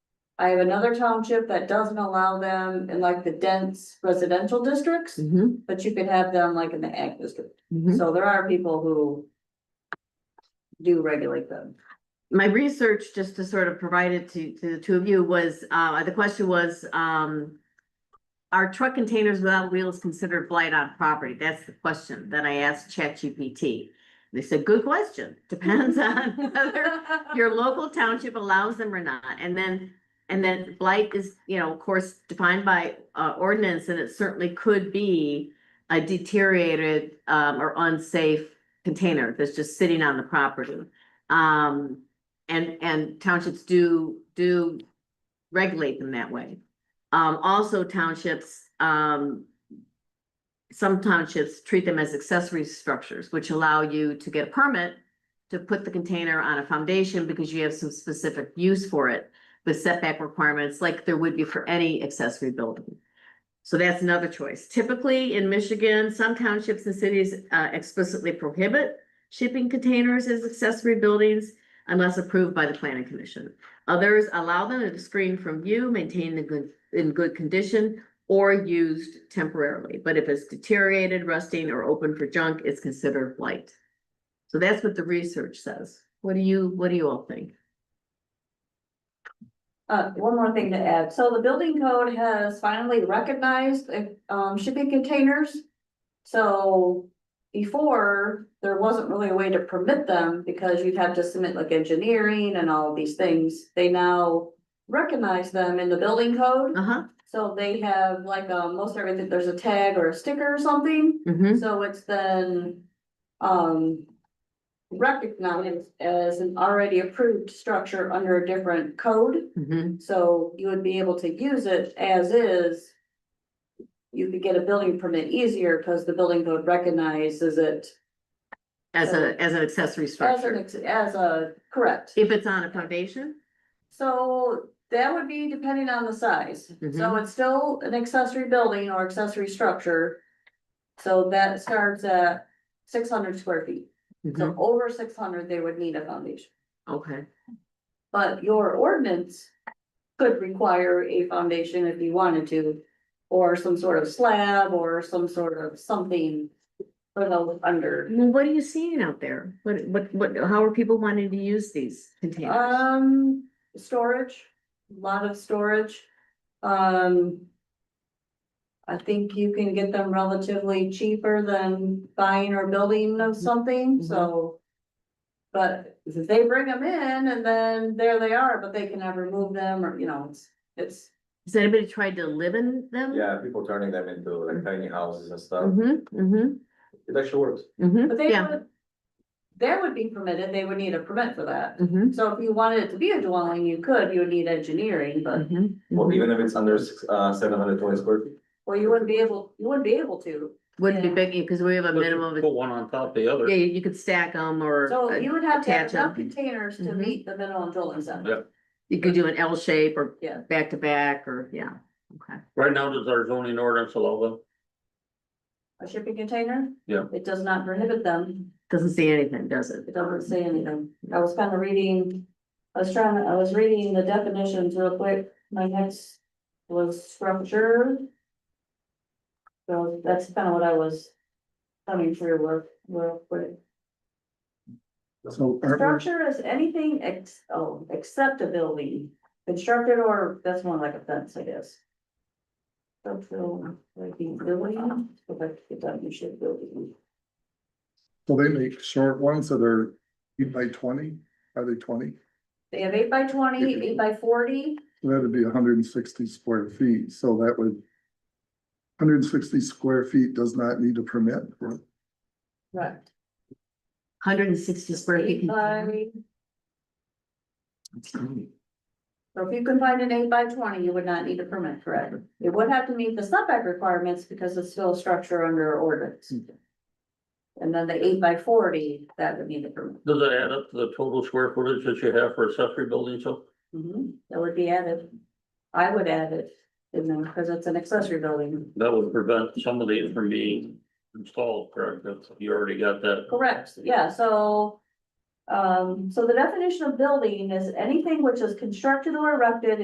I have another township that doesn't allow them in like the dense residential districts, Mhm, but you could have them like in the ag district. mhm. So there are people who do regulate them. My research, just to sort of provide it to, to the two of you, was, uh, the question was, um, are truck containers without wheels considered blight on property? That's the question that I asked ChatGPT. They said, good question, depends on whether your local township allows them or not, and then, and then blight is, you know, of course, defined by uh ordinance, and it certainly could be a deteriorated um or unsafe container that's just sitting on the property. Um, and, and townships do, do regulate them that way. Um, also townships, um, some townships treat them as accessory structures, which allow you to get a permit to put the container on a foundation because you have some specific use for it with setback requirements like there would be for any accessory building. So that's another choice. Typically in Michigan, some townships and cities uh, explicitly prohibit shipping containers as accessory buildings unless approved by the planning commission. Others allow them to screen from view, maintained in good, in good condition or used temporarily. But if it's deteriorated, rusting or open for junk, it's considered blight. So that's what the research says. What do you, what do you all think? Uh, one more thing to add. So the building code has finally recognized, um, shipping containers. So before, there wasn't really a way to permit them because you'd have to submit like engineering and all of these things. They now recognize them in the building code. Uh-huh, So they have like, um, most everything, there's a tag or a sticker or something. mm-hmm, So it's then, um. Recognized as an already approved structure under a different code, mm-hmm, so you would be able to use it as is. You could get a building permit easier because the building code recognizes it as a, as an accessory as an, structure. ex- as a, correct. If it's on a foundation, So that would be depending on the size, so Mhm. it's still an accessory building or accessory structure. So that starts at six hundred square feet. Mhm. So over six hundred, they would need a foundation, okay, but your ordinance could require a foundation if you wanted to. Or some sort of slab or some sort of something for those under. well, what are you seeing out there? What, what, what, how are people wanting to use these containers? Um, storage, a lot of storage, um. I think you can get them relatively cheaper than buying or building of something, Mhm. so. But if they bring them in and then there they are, but they can never move them or, you know, it's, it's. Has anybody tried to live in them? Yeah, people turning them into like tiny houses and stuff, Mm-hmm, mm-hmm, it actually works. But mm-hmm, they yeah, would, that would be permitted, they would need a permit for that. mm-hmm, So if you wanted it to be a dwelling, you could, you would need engineering, but, mm-hmm. Well, even if it's under six, uh, seven hundred twenty square feet. well, you wouldn't be able, you wouldn't be able to. Wouldn't be yeah. big, because we have a Put- minimum of, Put one on top of the yeah, other. you could stack them or. So uh, you would have to have attach 'em. enough containers to Mhm. meet the minimum building Yeah. standard. You could do an L shape or Yeah. back to back or, yeah, okay. Right now, does our zoning ordinance allow them? A shipping container? Yeah. It does not prohibit them, Doesn't say anything, does it? it doesn't say anything, I was kind of reading, I was trying, I was reading the definitions real quick, my next was structure. So that's kind of what I was coming through with, real quick. So Herbert, Structure is anything ex, oh, except a building, constructed or, that's more like a fence, I guess. Structural, like being building, go back to the definition of building. so they make short ones that are eight by twenty, are they twenty? They have eight by twenty, eight by forty, That'd be hundred and sixty square feet, so that would. Hundred and sixty square feet does not need a permit. right, Hundred and sixty square feet. eight container. by, so if you can find an eight by twenty, you would not need a permit, correct? It would have to meet the setback requirements because it's still a structure under ordinance. And then the eight by forty, that would need a permit. Does it add up to the total square footage that you have for accessory buildings? So Mhm, that would be added. I would add it in there because it's an accessory building. that would prevent some of these from being installed, correct? That's- You already got that. Correct, yeah, so. Um, so the definition of building is anything which is constructed or erected